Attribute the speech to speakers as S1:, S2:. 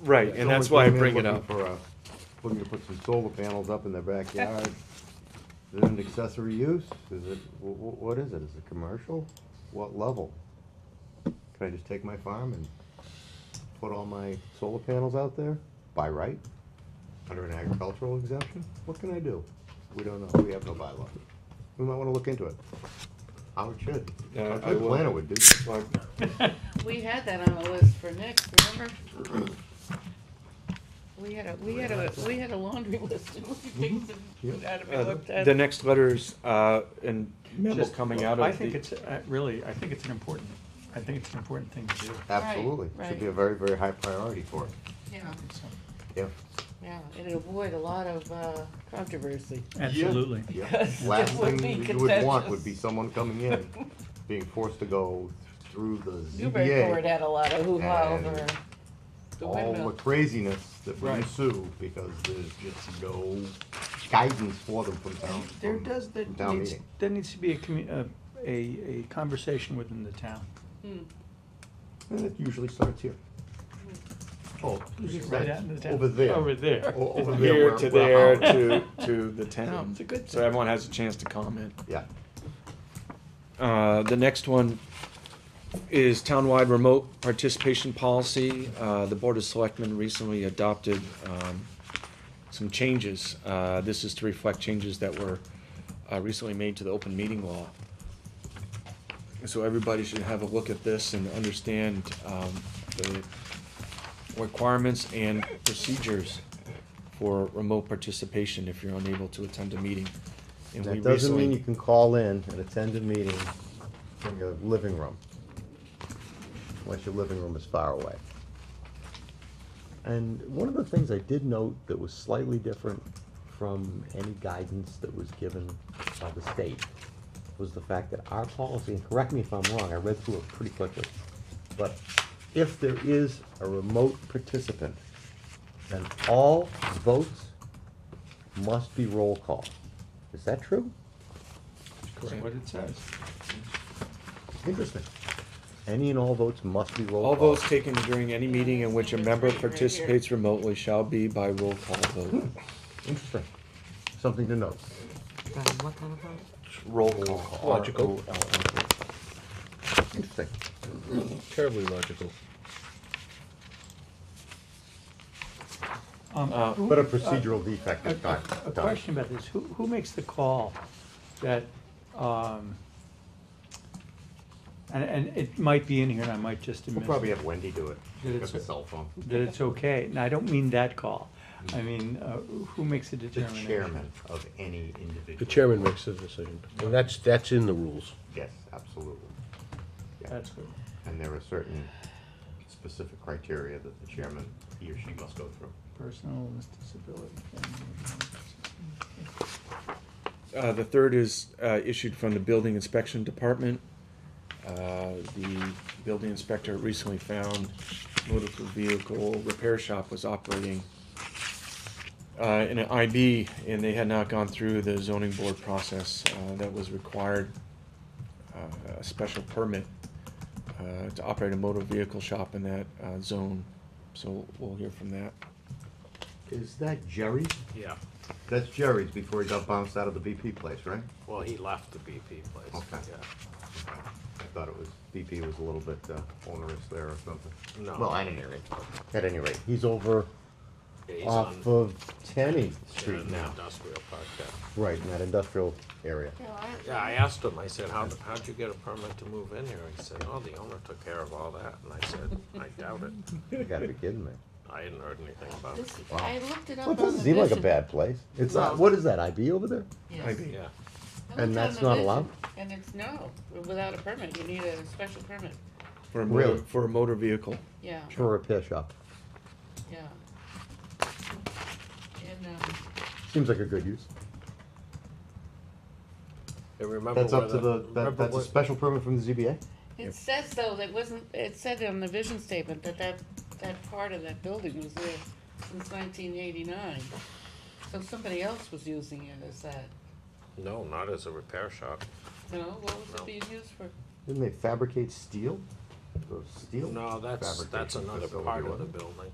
S1: Right, and that's why I
S2: Someone
S1: bring
S2: came in
S1: it up.
S2: Looking for a, looking to put some solar panels up in their backyard. Is it an accessory use? Is it, wh- wh- what is it? Is it commercial? What level? Can I just take my farm and put all my solar panels out there by right? Under an agricultural exemption? What can I do? We don't know. We have no bylaw. We might wanna look into it. How it should.
S1: Yeah,
S2: How a
S1: I
S2: good
S1: will.
S2: planner would do.
S3: We had that on the list for next, remember? We had a, we had a, we had a laundry list and we picked
S2: Yep.
S3: it out of
S1: Uh,
S3: it, looked at.
S1: The next letters, uh, and memo
S4: Just-
S1: coming out of the.
S4: I think it's, uh, really, I think it's an important, I think it's an important thing to do.
S2: Absolutely. Should be a very, very high priority for it.
S3: Yeah,
S2: If
S3: yeah, it'd avoid a lot of, uh, controversy.
S4: Absolutely.
S2: Yeah,
S3: Because
S2: last
S3: it would
S2: thing
S3: be
S2: you would want
S3: contentious.
S2: would be someone coming in, being forced to go through the
S3: Newburyport
S2: ZBA.
S3: had a lot of hoo-ha
S2: And
S3: over the
S2: All the
S3: windmill.
S2: craziness that would
S1: Right.
S2: ensue because there's just no guidance for them from town.
S4: There
S2: from-
S4: does, there
S2: from Town
S4: needs,
S2: meeting.
S4: there needs to be a commu, a, a, a conversation within the town.
S3: Hmm.
S2: And it usually starts here. Oh,
S4: Right out in the town. Oh,
S2: over there.
S4: Over there.
S2: O- over
S1: From
S2: there
S1: here
S2: where-
S1: to there
S2: where-
S1: to, to the town.
S4: It's a good
S1: So everyone has a chance to comment.
S2: Yeah,
S1: Uh, the next one is townwide remote participation policy. Uh, the Board of Selectmen recently adopted, um, some changes. Uh, this is to reflect changes that were, uh, recently made to the open meeting law. So everybody should have a look at this and understand, um, the requirements and procedures for remote participation if you're unable to attend a meeting. And we
S2: that doesn't mean
S1: recently-
S2: you can call in and attend a meeting from your living room. Unless your living room is far away. And one of the things I did note that was slightly different from any guidance that was given by the state was the fact that our policy, and correct me if I'm wrong, I read through it pretty quickly, but if there is a remote participant, then all votes must be roll call. Is that true?
S4: That's what it says.
S2: Interesting. Any and all votes must be roll call.
S1: All votes taken during any meeting in which a member participates remotely shall be by roll call vote.
S2: Interesting. Something to note.
S3: What kind of vote?
S1: Roll call.
S2: Logical. Interesting.
S5: Terribly logical.
S4: Um,
S1: Uh,
S4: who-
S2: But a
S4: uh,
S2: procedural defect
S4: A
S2: is not.
S4: a- a question about this, who, who makes the call that, um, and, and it might be in here and I might just
S2: We'll
S4: admit
S2: probably have Wendy do it. She's
S4: Yeah,
S2: got
S4: that's
S2: the
S4: it.
S2: cell phone.
S4: that it's okay, and I don't mean that call. I mean, uh, who makes the
S2: Mm-hmm. The
S4: determination?
S2: chairman of any individual.
S5: The chairman makes the decision, and that's, that's in the rules.
S2: Yes, absolutely. Yeah.
S4: That's good.
S2: And there are certain specific criteria that the chairman, he or she must go through.
S4: Personal disability.
S1: Uh, the third is, uh, issued from the building inspection department. Uh, the building inspector recently found motor vehicle repair shop was operating uh, in an IB, and they had not gone through the zoning board process uh, that was required, uh, a special permit uh, to operate a motor vehicle shop in that uh, zone. So we'll hear from that.
S2: Is that Jerry's?
S6: Yeah,
S2: That's Jerry's before he got bounced out of the BP place, right?
S6: well, he left the BP place,
S2: Okay.
S6: yeah.
S2: I thought it was, BP was a little bit uh, onerous there or something.
S6: No.
S2: Well, at any rate, at any rate, he's over
S6: Yeah, He's on,
S2: off of Tenny
S6: in
S2: Street
S6: an
S2: now.
S6: industrial park there.
S2: Right, in that industrial area.
S6: Yeah, I asked him, I said, how, how'd you get a permit to move in here? He said, oh, the owner took care of all that, and I said, I doubt it.
S2: You gotta be kidding me.
S6: I hadn't heard anything about it,
S3: This, I looked it up
S2: Well,
S3: on
S2: it
S3: the
S2: doesn't seem like a
S3: vision.
S2: bad place. It's not,
S3: No.
S2: what is that, IB over there?
S3: Yes.
S1: IB.
S6: yeah.
S3: I
S2: And
S3: looked on
S2: that's
S3: the
S2: not
S3: vision,
S2: allowed?
S3: And it's no, without a permit, you need a special permit,
S1: For a motor,
S2: Really?
S1: for a motor vehicle.
S3: yeah,
S2: For a repair shop.
S3: yeah. And, um,
S2: Seems like a good use.
S6: And remember
S2: That's
S6: where
S2: up to
S6: the,
S2: the, that,
S6: remember
S2: that's a
S6: where-
S2: special permit from the ZBA?
S3: It says though, that wasn't, it said on the vision statement that that, that part of that building was there since nineteen eighty-nine. So somebody else was using it as that,
S6: No, not as a repair shop.
S3: you know, what was
S6: No.
S3: it being used for?
S2: Didn't they fabricate steel? Those steel?
S6: No, that's, that's
S2: fabrication
S6: another
S2: facility,
S6: part of the
S2: wasn't it?
S6: building.